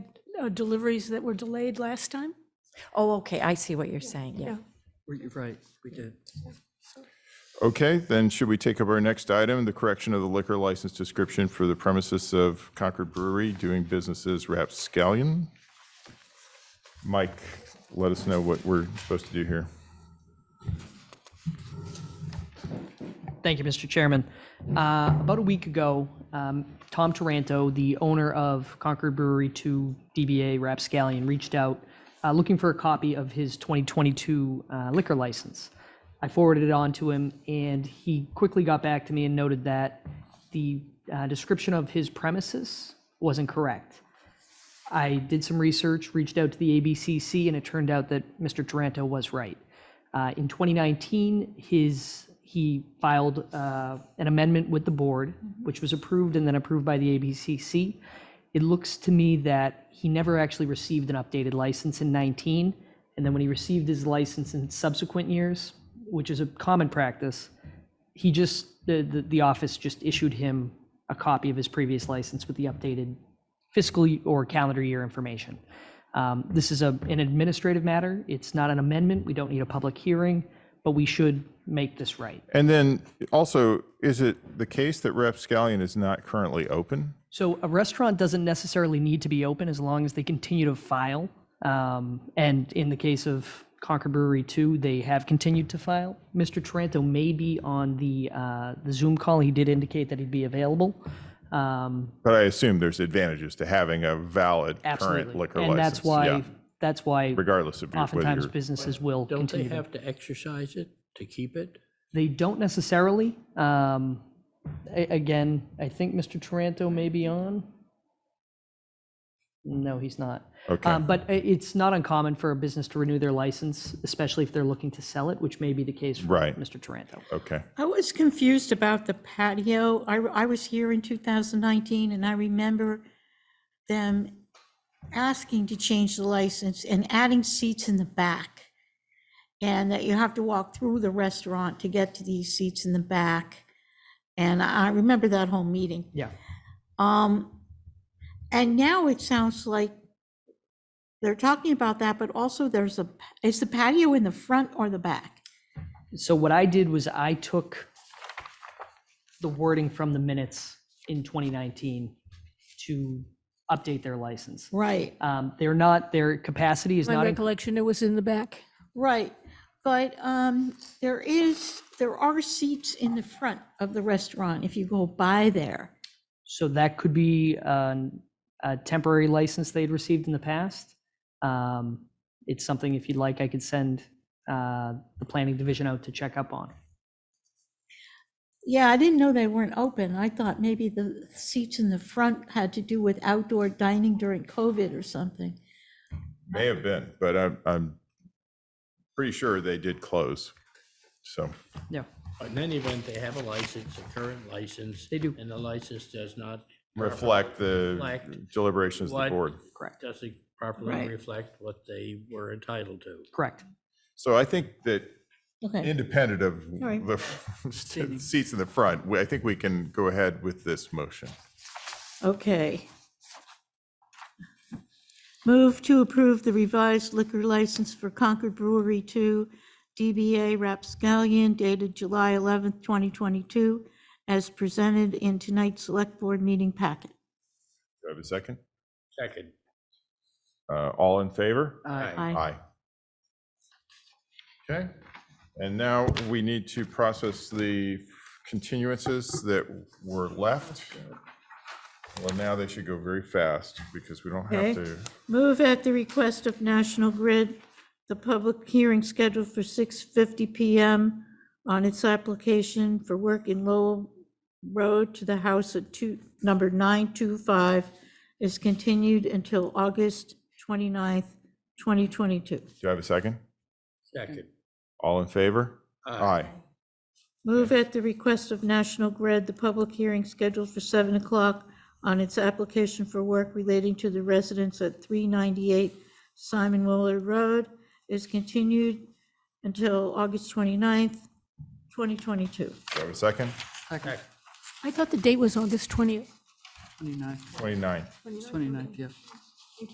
uh, deliveries that were delayed last time? Oh, okay, I see what you're saying, yeah. You're right, we did. Okay, then should we take up our next item, the correction of the liquor license description for the premises of Concord Brewery doing business as Rapscallion? Mike, let us know what we're supposed to do here. Thank you, Mr. Chairman. Uh, About a week ago, um, Tom Taranto, the owner of Concord Brewery 2 DBA Rapscallion, reached out uh, looking for a copy of his 2022 uh, liquor license. I forwarded it on to him, and he quickly got back to me and noted that the uh, description of his premises was incorrect. I did some research, reached out to the ABCC, and it turned out that Mr. Taranto was right. Uh, In 2019, his, he filed uh, an amendment with the board, which was approved and then approved by the ABCC. It looks to me that he never actually received an updated license in 19, and then when he received his license in subsequent years, which is a common practice, he just, the, the, the office just issued him a copy of his previous license with the updated fiscal y- or calendar year information. Um, This is a, an administrative matter. It's not an amendment. We don't need a public hearing, but we should make this right. And then also, is it the case that Rapscallion is not currently open? So a restaurant doesn't necessarily need to be open as long as they continue to file. Um, And in the case of Concord Brewery 2, they have continued to file. Mr. Taranto may be on the, uh, the Zoom call. He did indicate that he'd be available. Um, But I assume there's advantages to having a valid current Absolutely. liquor license. And that's yeah, why, that's why Regardless of your- whether oftentimes you're, businesses will Don't they continue to have to exercise it to keep it? They don't necessarily. Um, a- again, I think Mr. Taranto may be on. No, he's not. okay, Um, but i- it's not uncommon for a business to renew their license, especially if they're looking to sell it, which may be the case for Right. Mr. Taranto. okay. I was confused about the patio. I, I was here in 2019 and I remember them asking to change the license and adding seats in the back. And that you have to walk through the restaurant to get to these seats in the back. And I I remember that whole meeting. Yeah. Um, and now it sounds like they're talking about that, but also there's a, is the patio in the front or the back? So what I did was I took the wording from the minutes in 2019 to update their license. Right. Um, they're not, their capacity is My not, in- recollection, it was in the back. Right, but um, there is, there are seats in the front of the restaurant if you go by there. So that could be an- a temporary license they'd received in the past. Um, It's something, if you'd like, I could send uh, the planning division out to check up on. Yeah, I didn't know they weren't open. I thought maybe the seats in the front had to do with outdoor dining during COVID or something. May have been, but I'm, I'm pretty sure they did close, so. Yeah. In any event, they have a license, a current license. They do. And the license does not. reflect the Reflect deliberations of the what- board. Correct. Doesn't properly Right. reflect what they were entitled to. Correct. So I think that Okay, independent of right. the seats in the front, we- I think we can go ahead with this motion. okay. Move to approve the revised liquor license for Concord Brewery 2, DBA Rapscallion dated July 11th, 2022, as presented in tonight's Select Board meeting packet. Do I have a second? Second. Uh, All in favor? Aye. Aye. Okay, and now we need to process the continuances that were left. Well, now they should go very fast because we don't have Okay. to. Move at the request of National Grid, the public hearing scheduled for 6:50 PM on its application for work in Lowell Road to the house at two, number 925 is continued until August 29th, 2022. Do I have a second? Second. All in favor? Aye. Move at the request of National Grid, the public hearing scheduled for 7 o'clock on its application for work relating to the residents at 398 Simon Willard Road is continued until August 29th, 2022. Do I have a second? Second. I thought the date was August 20th. 29th, 29. 29th, yeah.